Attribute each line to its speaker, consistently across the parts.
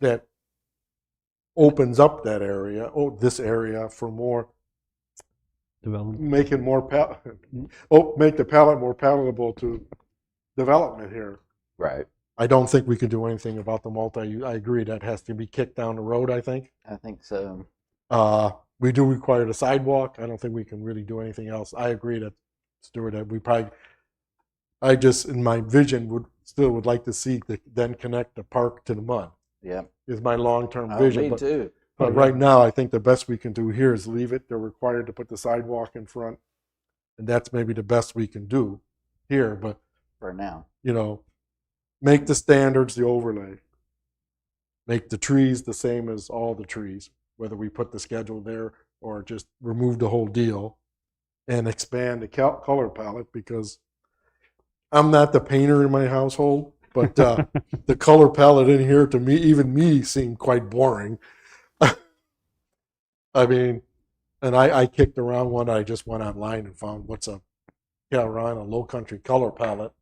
Speaker 1: that opens up that area, oh, this area for more,
Speaker 2: development.
Speaker 1: making more, pal- oh, make the palette more palatable to development here.
Speaker 3: Right.
Speaker 1: I don't think we can do anything about the multi, I agree, that has to be kicked down the road, I think.
Speaker 3: I think so.
Speaker 1: Uh, we do require the sidewalk. I don't think we can really do anything else. I agree that Stuart, that we probably, I just in my vision would still would like to see the, then connect the park to the mud
Speaker 3: Yeah.
Speaker 1: is my long term
Speaker 3: Oh,
Speaker 1: vision.
Speaker 3: me
Speaker 1: but,
Speaker 3: too.
Speaker 1: but right now, I think the best we can do here is leave it. They're required to put the sidewalk in front, and that's maybe the best we can do here. But
Speaker 3: For now.
Speaker 1: you know, make the standards the overlay. Make the trees the same as all the trees, whether we put the schedule there or just remove the whole deal and expand the col- color palette because I'm not the painter in my household, but uh, the color palette in here to me, even me, seemed quite boring. I mean, and I, I kicked around one. I just went online and found what's a Carolina Low Country color palette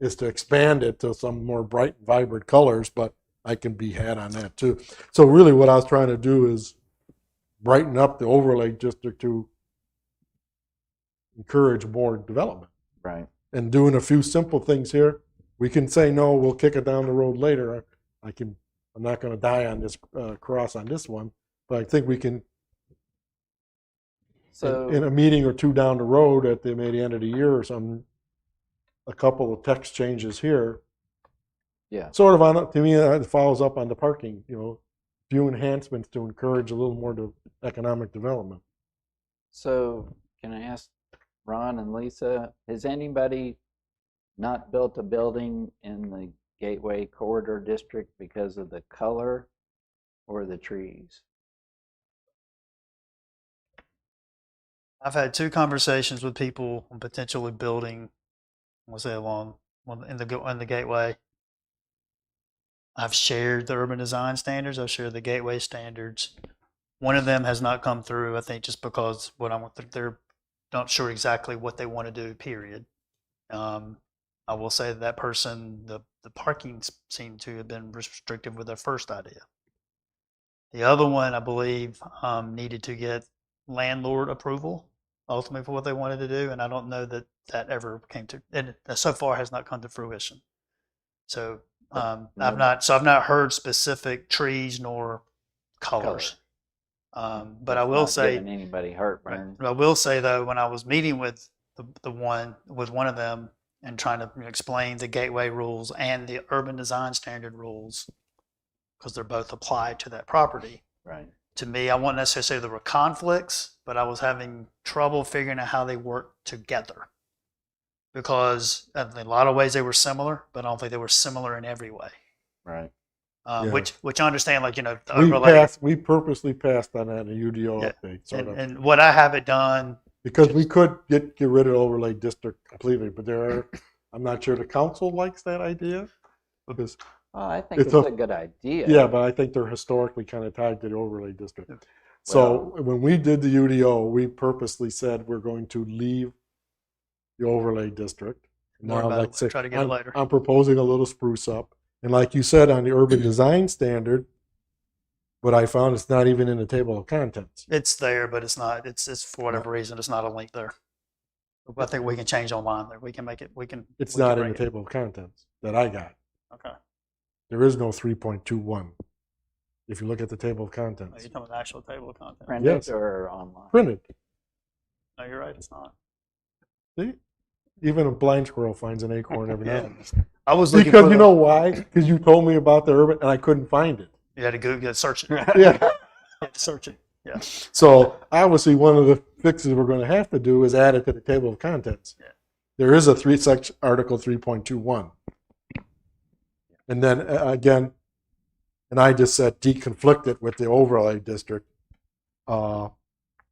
Speaker 1: is to expand it to some more bright, vibrant colors, but I can be had on that too. So really what I was trying to do is brighten up the overlay district to encourage more development.
Speaker 3: Right.
Speaker 1: And doing a few simple things here, we can say, no, we'll kick it down the road later. I can, I'm not gonna die on this, uh, cross on this one, but I think we can,
Speaker 3: So
Speaker 1: in, in a meeting or two down the road at the, maybe end of the year or something, a couple of text changes here
Speaker 3: yeah.
Speaker 1: sort of on to me uh, it follows up on the parking you know few enhancements to encourage a little more to economic development
Speaker 3: So can I ask Ron and Lisa, has anybody not built a building in the Gateway Corridor District because of the color or the trees?
Speaker 4: I've had two conversations with people on potentially building, we'll say along on- in the go- in the gateway. I've shared the urban design standards. I've shared the gateway standards. One of them has not come through. I think just because what I'm they're not sure exactly what they want to do. Period. Um, I will say that person the the parking s- seemed to have been restrictive with their first idea. The other one, I believe, um, needed to get landlord approval ultimately for what they wanted to do and i don't know that that ever came to and it so far has not come to fruition so um, i've
Speaker 3: no.
Speaker 4: not so i've not heard specific trees nor colors
Speaker 3: Color.
Speaker 4: um, but i
Speaker 3: That's
Speaker 4: will
Speaker 3: not
Speaker 4: say
Speaker 3: giving Anybody
Speaker 4: Right.
Speaker 3: heartburn?
Speaker 4: I will say though, when I was meeting with the, the one with one of them and trying to you know, explain the gateway rules and the urban design standard rules, because they're both applied to that property.
Speaker 3: Right.
Speaker 4: To me, I wouldn't necessarily say there were conflicts, but I was having trouble figuring out how they work together. Because uh, in a lot of ways they were similar, but I don't think they were similar in every way.
Speaker 3: Right.
Speaker 4: Um,
Speaker 1: Yeah.
Speaker 4: Which which I understand, like you know, the
Speaker 1: we
Speaker 4: overlay
Speaker 1: passed we purposely passed on that in a udo
Speaker 4: Yeah,
Speaker 1: update sort
Speaker 4: and,
Speaker 1: of
Speaker 4: and what I have it done
Speaker 1: because we could get get rid of overlay district completely but there are i'm not sure the council likes that idea because
Speaker 3: Well, Oh, I think
Speaker 1: It's
Speaker 3: it's
Speaker 1: a-
Speaker 3: a good idea.
Speaker 1: yeah but i think they're historically kind of tied to the overlay district so when we did the udo we purposely said we're going to leave the overlay district
Speaker 4: more
Speaker 1: Now,
Speaker 4: about
Speaker 1: like
Speaker 4: it,
Speaker 1: say,
Speaker 4: try to get
Speaker 1: I'm,
Speaker 4: it later.
Speaker 1: I'm proposing a little spruce up. And like you said, on the
Speaker 4: Mm-hmm.
Speaker 1: urban design standard, what I found it's not even in the table of contents.
Speaker 4: It's there, but it's not, it's, it's for whatever reason, it's not a link there. But I think we can change online there. We can make it, we can.
Speaker 1: It's
Speaker 4: we can
Speaker 1: not in
Speaker 4: bring
Speaker 1: the table of contents that I got.
Speaker 4: it. Okay.
Speaker 1: There is no 3.21. If you look at the table of
Speaker 4: Are
Speaker 1: contents,
Speaker 4: you talking about the actual table of content?
Speaker 3: Print
Speaker 1: Yes.
Speaker 3: it or online?
Speaker 1: printed.
Speaker 4: No, you're right, it's not.
Speaker 1: See? Even a blind squirrel finds an acorn every now
Speaker 4: Yeah.
Speaker 1: and then.
Speaker 4: I was looking for
Speaker 1: Because you know
Speaker 4: the,
Speaker 1: why? Because you told me about the urban and I couldn't find it.
Speaker 4: you had to Google, you had to search it, you
Speaker 1: Yeah.
Speaker 4: had to search it. Yeah.
Speaker 1: So obviously, one of the fixes we're going to have to do is add it to the table of contents.
Speaker 4: Yeah.
Speaker 1: There is a three section article three point two one, and then uh, again, and I just said deconflict it with the overlay district uh, because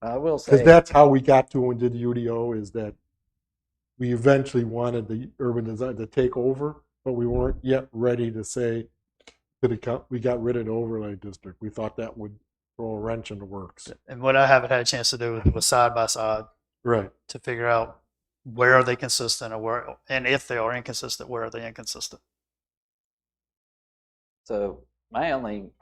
Speaker 3: I will say.
Speaker 1: that's how we got to when we did the UDO is that we eventually wanted the urban design to take over, but we weren't yet ready to say to the co- we got rid of the overlay district. We thought that would throw a wrench in the works.
Speaker 4: And what I haven't had a chance to do was- was side by side
Speaker 1: Right.
Speaker 4: to figure out where are they consistent or where, and if they are inconsistent, where are they inconsistent?
Speaker 3: So my only